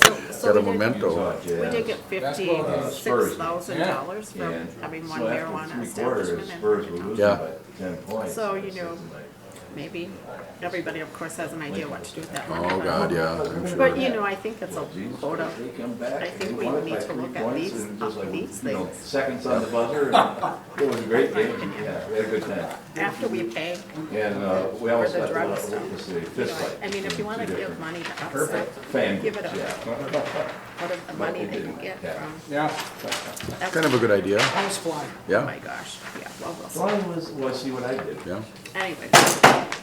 So got a we did- memento. Utah of We it. did Jazz. get uh, fifty-six thousand dollars from And having one so after marijuana three quarters, establishment Spurs were in losing Yeah. by ten points. So, you It's know, just like, maybe. Everybody, of course, has an idea what to do with that money. Oh, but- God, yeah, I'm But, sure. you know, I think it's a well, geez, quota. they come back, I they think we won it need by to three look at points, these- and just like, these you know, things. Seconds on the buzzer, and it was a great game, yeah, we had a good time. After we pay, And, uh, we For almost the got to, drug what stuff. was the you fist know, fight? I mean, if you between wanna two give different money to offset Perfect. Fan, give it up. yeah. part of the money that you get Yeah. from, Yeah, that's, Kind of a good idea, I was flying. oh my yeah, gosh, yeah, well, we'll see. Well, was, well, see what I did, yeah. Anyway,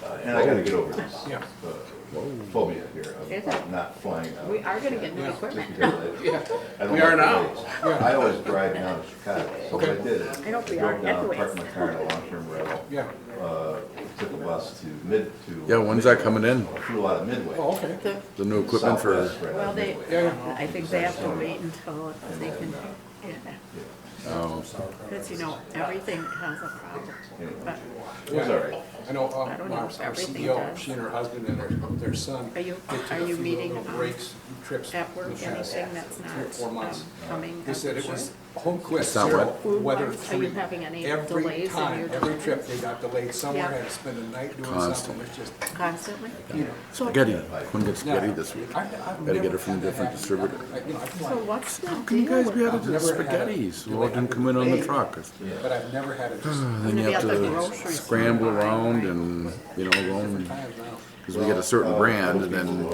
Uh, and I gotta get over this. Yeah. uh, Phobia here Is of it? not flying out. we are gonna get new Yeah. Just equipment. because I- I don't We are like now. delays. I always drive down to Chicago, so what I did is. I hope we drove are down, anyways. Parked my car in a long-term rental. Yeah. Uh, took a bus to Mid, to. Yeah, when's that coming in? Flew out of Midway. Oh, okay. The- The new equipment for, Southwest, right out of Well, they, Midway. Yeah, yeah. I think they have to wait until they can, yeah. oh, Because, you know, everything has a problem, but It was all right. I I know, um, don't our our know if everything CEO, does. she and her husband and their, their son. Are you- they took are a you few meeting, little um, Breaks, trips. at work, this past anything that's Three or four not um, months. coming. They said it up, was sure. home quest, It's not zero, what? Food weather wise, are you three. having any delays Every in time, your every driving? trip, they got delayed somewhere, Yeah. had to spend a night doing something, Constantly. it's just, Constantly? you know. So, spaghetti, couldn't get spaghetti this week. I- I've Gotta get never it from a had that different happen. distributor. I- you know, I can so like- what's the deal? Can you guys be out I've of never had a spaghettis? Well, it delay. didn't come in on the Hey. truck. But I've never had it. Then you Maybe have at the to grocery store. scramble around and, you know, go and Times now. Because we get a certain brand and then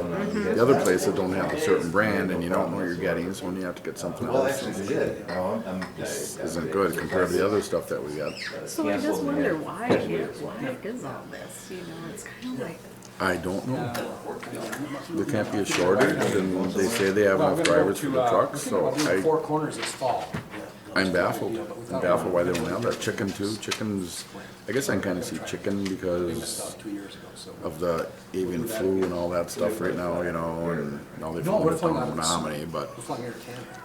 the other places don't have a certain brand and you don't know what you're getting, so when you have to get something Well, else, actually, they did. No, I'm- I'm- this isn't good compared to the other stuff that we got. So I just Canceled, wonder yeah. why, it- why is all this, you know, it's kind of like, I don't know. There can't be a shortage and they say they have Well, I'm enough gonna go drivers for to, the uh, trucks, I'm thinking so about doing I, Four corners this fall. I'm baffled. I'm baffled why they don't have that. Chicken too, chickens, I guess I can kinda see chicken I missed because out two years ago, so. of the avian flu and all that stuff right now, you know, and now they've No, we're owned it down flying in out. Menominee, but We're flying here to Canada.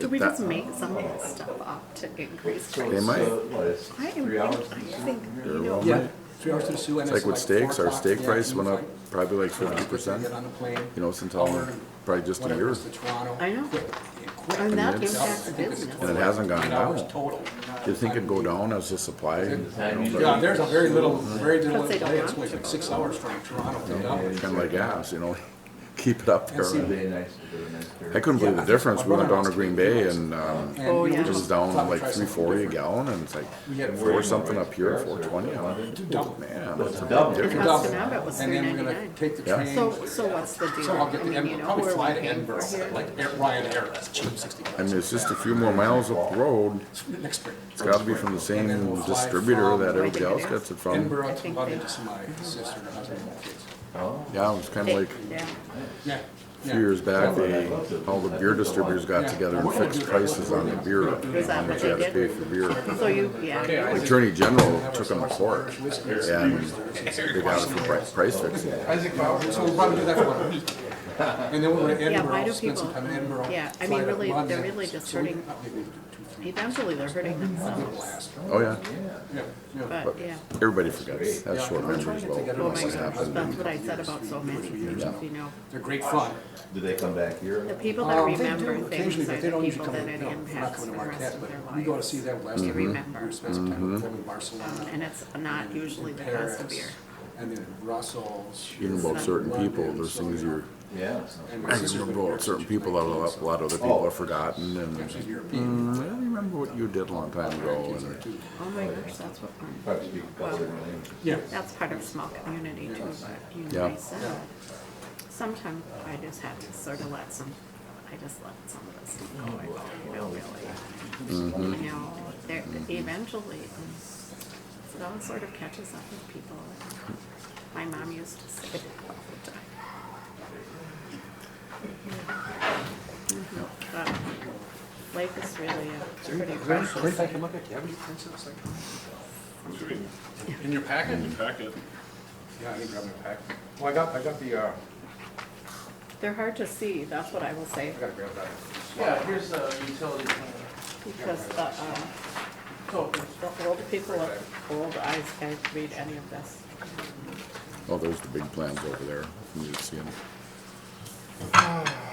do we that- just make some of this stuff up to increase So prices? They it's, might. uh, what, it's I am, three think- hours I from Sioux? think, you They're know, wrong. Yeah. Three hours to Sioux and It's it's like like with steaks, four our o'clock in steak the price went up afternoon, it's probably like fifty like, Get on percent, the plane. you know, since all, hour, probably just a whatever, year. it's to Toronto. I know. Quick, quick. and that it's- impacts And it business. hasn't gone Eight hours down. total. Do you think it'd go down as the supply? Yeah, there's a very little, very little Because they don't delay. It's want like to. six hours from Toronto to Dublin. Kind of like gas, you know, keep it up And see, there. Really nice, really nice beer. I couldn't believe the difference. We went down to Green Bay and, um, And Oh, we yeah. it was just down thought we'd like try three something forty a different. gallon and it's like We had Where four you something going, up here, Reds or four twenty. I'm like, London? Dublin. man, that's a Double. big difference. Cost to have it was And then we're gonna $3.99. take the Yeah. train. So, so what's the deal? So I'll get I to mean, you Edinburgh, know, probably where fly we're to paying Edinburgh, for here. like Air- Ryan Air, that's cheap, sixty bucks. I mean, it's just a few more miles up the road. Next spring. It's gotta be from the same distributor that everybody else gets it from. Edinburgh, I think London, they- just my sister and her husband and kids. Oh. Yeah, it was kind of like Yeah, Yeah. a few years back, they, all the beer distributors got together and fixed prices on the beer, how much you had to pay for beer. so you, yeah, you would- Attorney General took them to court and they got it for pri- price fixing. Isaac Bauer, so we'll probably do that for about a week. And then we'll go to Yeah, why Edinburgh, do spend some people- time in Edinburgh. yeah, I fly mean, to really- they're London. really just So we- hurting- uh, maybe two, three, eventually they're hurting themselves, Oh, yeah. Yeah, yeah. but, yeah. Everybody forgets. That's short memories, Oh well, my must gosh, have that's happened. what I said about so many, you know. They're great fun. Do they come back here? The people that Um, they remember do things occasionally, are but they the don't usually people come that to, it no, we're not impacts coming for to the rest Marquette, of their but we go to lives. see them last year. They remember. We spent some time with them in Barcelona. And it's not usually the cost of Paris, beer. And then Brussels. Even about certain people, there's So, things you know, you're, Yeah. and my I sister's been remember about married certain since people that a lot, a 19, lot of other people have forgotten and, so She's mm, European. I remember what you did a long time ago and Oh my gosh, that's what, we're- Probably speak a couple different languages. Yeah. that's part of small community too, but you know, Yeah. I said, sometimes I just have to sort of let some, I just let some of this stuff go, I don't really. You know, there, eventually, it all sort of catches up with people. My mom used to say that all the time. Mhm. But Life is really a pretty precious. I can look at, do you have any prints of this, like? In your packet? In your packet. Yeah, I didn't grab my pack. Well, I got, I got the, uh, They're hard to see, that's what I will say, I gotta grab that. Yeah, here's the utility. because the, um, So, the old people with old eyes can't read any of this. Oh, there's the big plans over there. You can see 'em.